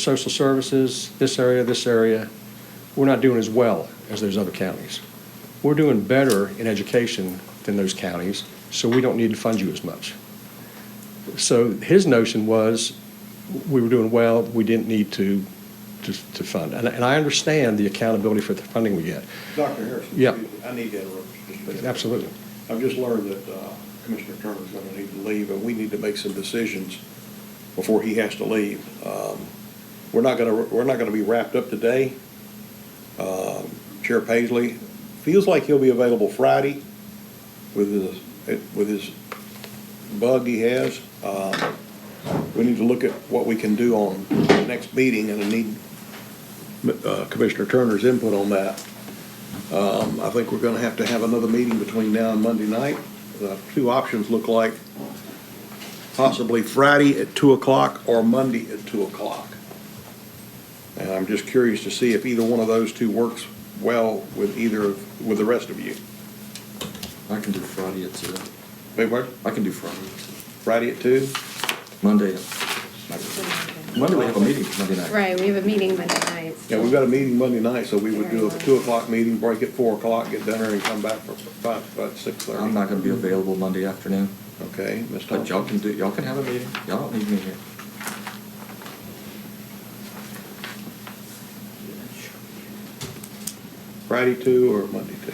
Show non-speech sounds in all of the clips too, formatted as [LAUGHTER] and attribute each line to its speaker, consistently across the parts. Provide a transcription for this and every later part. Speaker 1: social services, this area, this area, we're not doing as well as those other counties. We're doing better in education than those counties, so we don't need to fund you as much. So his notion was, we were doing well, we didn't need to, to, to fund. And, and I understand the accountability for the funding we get,
Speaker 2: Dr. Harrison?
Speaker 1: Yeah.
Speaker 2: I need to interrupt. you just a minute.
Speaker 1: absolutely.
Speaker 2: I've just learned that uh, Commissioner Turner's going to need to leave, and we need to make some decisions before he has to leave. Um, We're not going to, we're not going to be wrapped up today. Um, Chair Paisley feels like he'll be available Friday with his, with his bug he has. Um, We need to look at what we can do on the next meeting, and I need uh, Commissioner Turner's input on that. Um, I think we're gonna have to have another meeting between now and Monday night. The two options look like possibly Friday at two o'clock or Monday at two o'clock. And I'm just curious to see if either one of those two works well with either, of- with the rest of you.
Speaker 3: I can do Friday at two.
Speaker 2: Wait, what?
Speaker 3: I can do Friday at
Speaker 2: Friday at two?
Speaker 3: two. Monday. Monday we have a meeting, Monday night.
Speaker 4: Right, we have a meeting Monday night.
Speaker 2: Yeah, we've got a meeting Monday night, so we would do a two o'clock meeting, break at four o'clock, get dinner and come back for five, about six thirty.
Speaker 3: I'm not gonna be available Monday afternoon,
Speaker 2: Okay, Ms.
Speaker 3: but
Speaker 2: Thompson?
Speaker 3: y'all can do, y'all can have a meeting. Y'all don't need me here.
Speaker 2: Friday two or Monday two?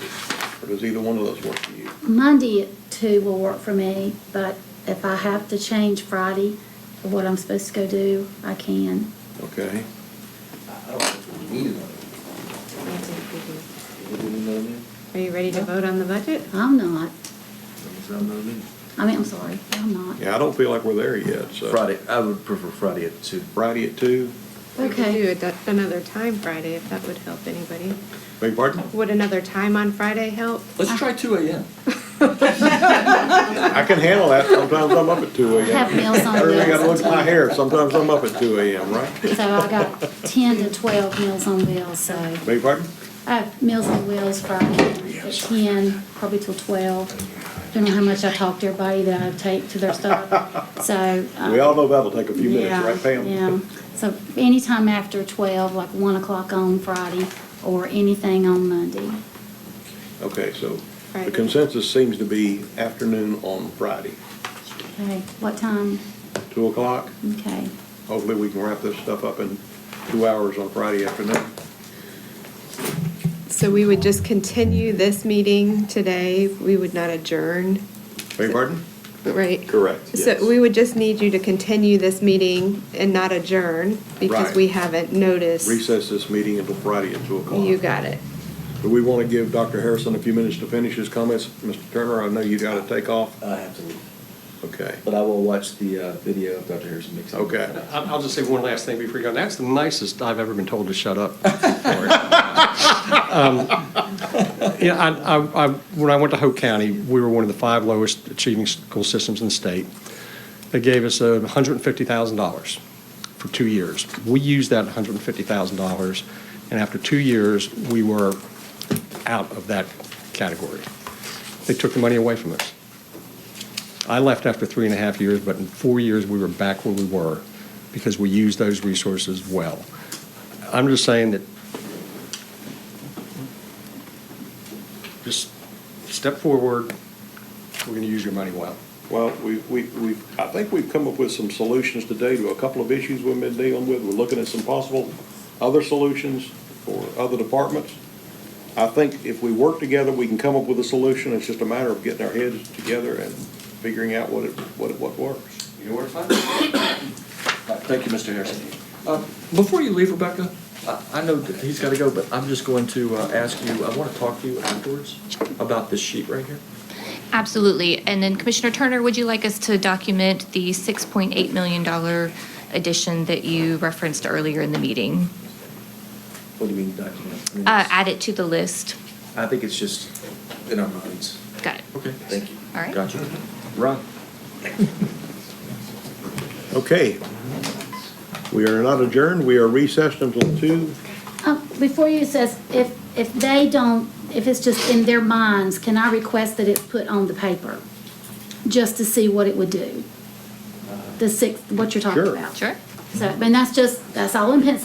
Speaker 2: Or does either one of those work for you?
Speaker 5: Monday at two will work for me, but if I have to change Friday for what I'm supposed to go do, I can.
Speaker 2: Okay.
Speaker 6: I don't think we need another meeting. Would we need another meeting?
Speaker 4: Are you ready to vote on the budget?
Speaker 5: I'm not.
Speaker 6: Is that another meeting?
Speaker 5: I mean, I'm sorry, I'm not.
Speaker 2: Yeah, I don't feel like we're there yet, so.
Speaker 6: Friday, I would prefer Friday at two.
Speaker 2: Friday at two,
Speaker 4: We could
Speaker 5: Okay.
Speaker 4: do it at another time Friday, if that would help anybody.
Speaker 2: beg your pardon?
Speaker 4: Would another time on Friday help?
Speaker 3: Let's try two AM.
Speaker 2: I can handle that, sometimes I'm up at two
Speaker 5: I have
Speaker 2: AM.
Speaker 5: meals on
Speaker 2: Everybody gotta look
Speaker 5: wheels,
Speaker 2: at my hair, sometimes I'm up at two AM, right?
Speaker 5: so I
Speaker 2: [LAUGHS]
Speaker 5: got ten to twelve meals on wheels, so
Speaker 2: Beg your pardon?
Speaker 5: I have meals on wheels Friday at ten, probably till twelve. Don't know how much I talk to everybody that I take to their stuff, so. uh,
Speaker 2: We all know that'll take a few minutes,
Speaker 5: Yeah,
Speaker 2: right Pam?
Speaker 5: Yeah, so anytime after twelve, like one o'clock on Friday, or anything on Monday.
Speaker 2: [LAUGHS] Okay, so the
Speaker 4: Friday.
Speaker 2: consensus seems to be afternoon on Friday,
Speaker 5: Okay, what time?
Speaker 2: two o'clock.
Speaker 5: Okay,
Speaker 2: Hopefully, we can wrap this stuff up in two hours on Friday afternoon.
Speaker 4: So we would just continue this meeting today, we would not adjourn,
Speaker 2: Beg your pardon?
Speaker 4: right?
Speaker 2: Correct,
Speaker 4: So we would just need you to continue this meeting and not adjourn, because
Speaker 2: Right.
Speaker 4: we haven't noticed.
Speaker 2: Recess this meeting until Friday at two o'clock.
Speaker 4: You got it.
Speaker 2: Do we want to give Dr. Harrison a few minutes to finish his comments? Mr. Turner, I know you got to take off.
Speaker 6: I have to leave,
Speaker 2: Okay.
Speaker 6: but I will watch the uh, video of Dr. Harrison mixing.
Speaker 2: Okay.
Speaker 1: I- I'll just say one last thing before you go. That's the nicest I've ever been told to shut up. Um, Yeah, I, I, I- when I went to Hope County, we were one of the five lowest achieving school systems in the state. They gave us uh, $150,000 for two years. We used that $150,000, and after two years, we were out of that category. They took the money away from us. I left after three and a half years, but in four years, we were back where we were because we used those resources well. I'm just saying that, just step forward, we're going to use your money well.
Speaker 2: Well, we, we, we, I think we've come up with some solutions today to a couple of issues we've been dealing with. We're looking at some possible other solutions for other departments. I think if we work together, we can come up with a solution. It's just a matter of getting our heads together and figuring out what it, what, it- what works.
Speaker 3: You know where to find me?
Speaker 6: [COUGHS]
Speaker 3: Right, Thank you, Mr. Harrison. Uh, Before you leave, Rebecca, I, I know that he's gotta go, but I'm just going to uh, ask you, I wanna talk to you afterwards about this sheet right here.
Speaker 7: Absolutely. And then Commissioner Turner, would you like us to document the $6.8 million addition that you referenced earlier in the meeting?
Speaker 6: What do you mean document? I mean,
Speaker 7: Uh,
Speaker 6: it's-
Speaker 7: Add it to the list.
Speaker 6: I think it's just in our minds.
Speaker 7: Got it.
Speaker 3: Okay.
Speaker 6: Thank you.
Speaker 7: All right.
Speaker 3: Gotcha. Ron?
Speaker 2: Okay. We are not adjourned. We are recessed until two.
Speaker 5: uh, before you says, if, if they don't, if it's just in their minds, can I request that it's put on the paper? Just to see what it would do? The six, what you're talking
Speaker 2: Sure.
Speaker 5: about?
Speaker 7: Sure.
Speaker 5: So, and that's just, that's all in pencil.